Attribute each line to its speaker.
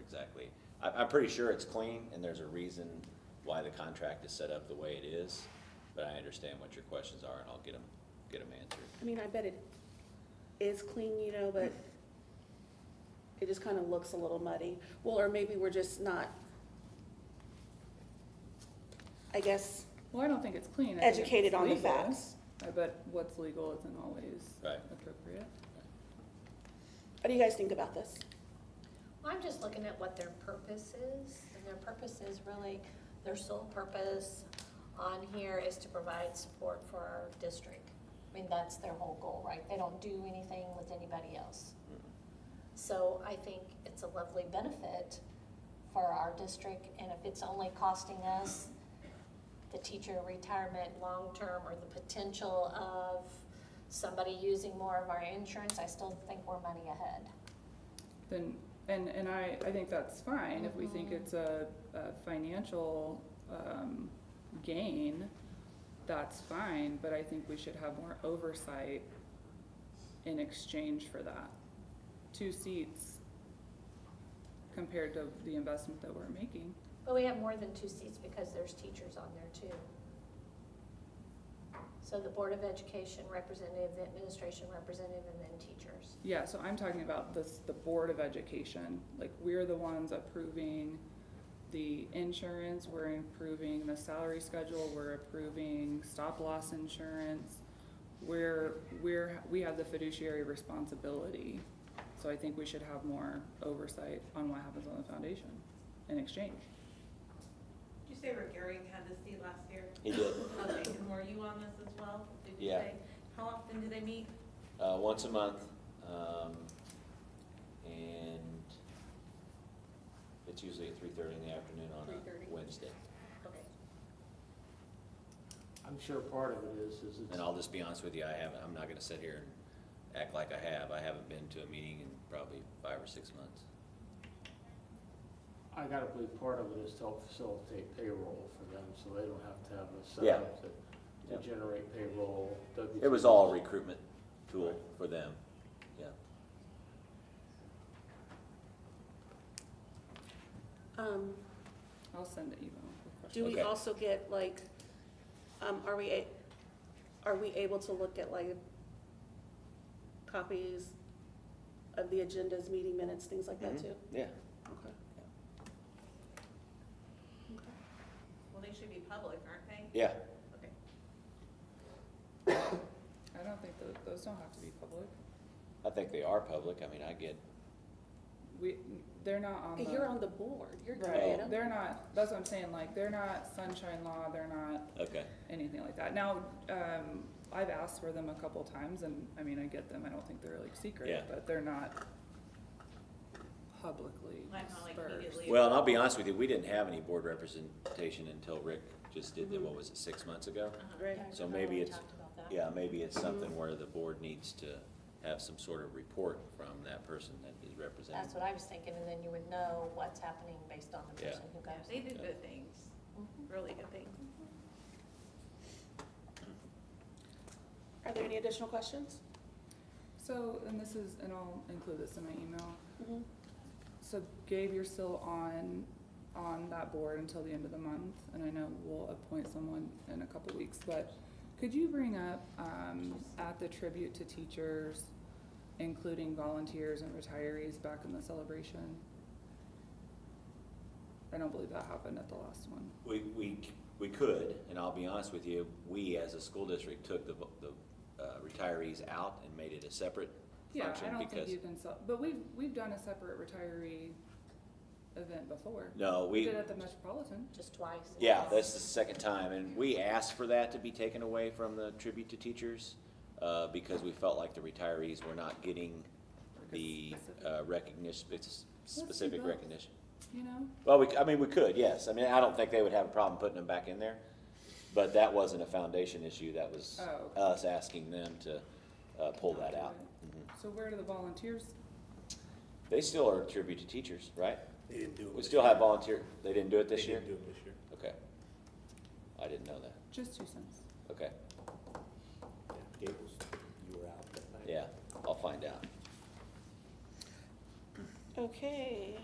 Speaker 1: exactly. I, I'm pretty sure it's clean, and there's a reason why the contract is set up the way it is, but I understand what your questions are, and I'll get them, get them answered.
Speaker 2: I mean, I bet it is clean, you know, but it just kind of looks a little muddy. Well, or maybe we're just not, I guess,
Speaker 3: Well, I don't think it's clean. I think it's
Speaker 2: educated on the
Speaker 3: legal.
Speaker 2: facts.
Speaker 3: I bet what's legal isn't always
Speaker 1: Right.
Speaker 3: appropriate.
Speaker 2: What do you guys think about this?
Speaker 4: I'm just looking at what their purpose is, and their purpose is really, their sole purpose on here is to provide support for our district. I mean, that's their whole goal, right? They don't do anything with anybody else. So I think it's a lovely benefit for our district, and if it's only costing us the teacher retirement long-term or the potential of somebody using more of our insurance, I still think we're money ahead.
Speaker 3: Then, and, and I, I think that's fine if we think
Speaker 2: Mm-hmm.
Speaker 3: it's a, a financial, um, gain, that's fine, but I think we should have more oversight in exchange for that. Two seats compared to the investment that we're making.
Speaker 4: But we have more than two seats because there's teachers on there too. So the Board of Education representative, the administration representative, and then teachers.
Speaker 3: Yeah, so I'm talking about this, the Board of Education, like, we're the ones approving the insurance, we're approving the salary schedule, we're approving stop-loss insurance. We're, we're, we have the fiduciary responsibility, so I think we should have more oversight on what happens on the foundation in exchange.
Speaker 5: Did you say Regarian had this seat last year?
Speaker 1: He did.
Speaker 5: Okay, and were you on this as well? Did you
Speaker 1: Yeah.
Speaker 5: say- How often do they meet?
Speaker 1: Uh, once a month, um, and it's usually at three-thirty in the afternoon on a
Speaker 5: 3:30.
Speaker 1: Wednesday.
Speaker 4: Okay.
Speaker 6: I'm sure part of it is, is it's,
Speaker 1: And I'll just be honest with you, I haven't, I'm not gonna sit here and act like I have. I haven't been to a meeting in probably five or six months.
Speaker 6: I gotta believe part of it is to help facilitate payroll for them, so they don't have to have a
Speaker 1: Yeah.
Speaker 6: setup to,
Speaker 1: Yeah.
Speaker 6: to generate payroll.
Speaker 1: It was all recruitment tool for them, yeah.
Speaker 2: Um,
Speaker 3: I'll send an email with
Speaker 2: do
Speaker 3: questions.
Speaker 2: we
Speaker 1: Okay.
Speaker 2: also get like, um, are we, a- are we able to look at like copies of the agendas, meeting minutes, things like that
Speaker 3: Mm-hmm.
Speaker 1: Mhm.
Speaker 2: too?
Speaker 1: Yeah.
Speaker 2: Okay. Okay.
Speaker 5: Well, they should be public, aren't they?
Speaker 1: Yeah,
Speaker 5: Okay.
Speaker 3: I don't think tho- those don't have to be public.
Speaker 1: I think they are public. I mean, I get,
Speaker 3: We, they're not on the.
Speaker 2: You're on the board, you're
Speaker 3: Right,
Speaker 2: creative.
Speaker 3: they're not, that's what I'm saying, like, they're not sunshine law, they're not
Speaker 1: okay,
Speaker 3: anything like that. Now, um, I've asked for them a couple times and, I mean, I get them, I don't think they're like
Speaker 1: Yeah.
Speaker 3: secret, but they're not publicly
Speaker 5: Like, not, like,
Speaker 3: dispersed.
Speaker 5: immediately.
Speaker 1: Well, and I'll be honest with you, we didn't have any board representation until Rick just did, the-
Speaker 3: Mm-hmm.
Speaker 1: what was it, six months ago?
Speaker 3: Uh-huh.
Speaker 5: Uh-huh.
Speaker 2: Right.
Speaker 1: So maybe it's-
Speaker 4: We talked about that.
Speaker 1: Yeah, maybe it's
Speaker 3: Mm-hmm.
Speaker 1: something where the board needs to have some sort of report from that person that is represented.
Speaker 4: That's what I was thinking, and then you would know what's happening based on the
Speaker 1: Yeah.
Speaker 4: person who
Speaker 5: Yeah,
Speaker 4: goes.
Speaker 5: They do good things,
Speaker 4: Mhm.
Speaker 5: really good things.
Speaker 2: Are there any additional questions?
Speaker 3: So, and this is, and I'll include this in my email.
Speaker 2: Mhm.
Speaker 3: So Gabe, you're still on, on that board until the end of the month, and I know we'll appoint someone in a couple weeks, but could you bring up, um, at the tribute to teachers, including volunteers and retirees back in the celebration? I don't believe that happened at the last one.
Speaker 1: We, we, c- we could, and I'll be honest with you, we as a school district took the, vo- the uh, retirees out and made it a separate
Speaker 3: Yeah, I
Speaker 1: function
Speaker 3: don't think
Speaker 1: because,
Speaker 3: you can sell, but we've, we've done a separate retiree event before.
Speaker 1: no,
Speaker 3: We
Speaker 1: we,
Speaker 3: did it at the Metropolitan.
Speaker 4: Just twice.
Speaker 1: yeah, that's the second time, and we asked for that to be taken away from the tribute to teachers, uh, because we felt like the retirees were not getting
Speaker 3: like a
Speaker 1: the,
Speaker 3: specific-
Speaker 1: uh, recognition, spec- specific
Speaker 3: both.
Speaker 1: recognition.
Speaker 3: You know?
Speaker 1: Well, we, c- I mean, we could, yes. I mean, I don't think they would have a problem putting them back in there. But that wasn't a foundation issue. That was
Speaker 3: Oh, okay.
Speaker 1: us asking them to, uh, pull that out. Mhm.
Speaker 3: So where do the volunteers
Speaker 1: They still are a tribute to teachers, right?
Speaker 7: They didn't do it.
Speaker 1: We
Speaker 7: this
Speaker 1: still
Speaker 7: year.
Speaker 1: have volunteer, they didn't do it
Speaker 7: They
Speaker 1: this year?
Speaker 7: didn't do it this year.
Speaker 1: Okay. I didn't know that.
Speaker 3: Just two cents.
Speaker 1: Okay,
Speaker 7: Yeah, Gables, you were out that night.
Speaker 1: yeah, I'll find out.
Speaker 2: Okay.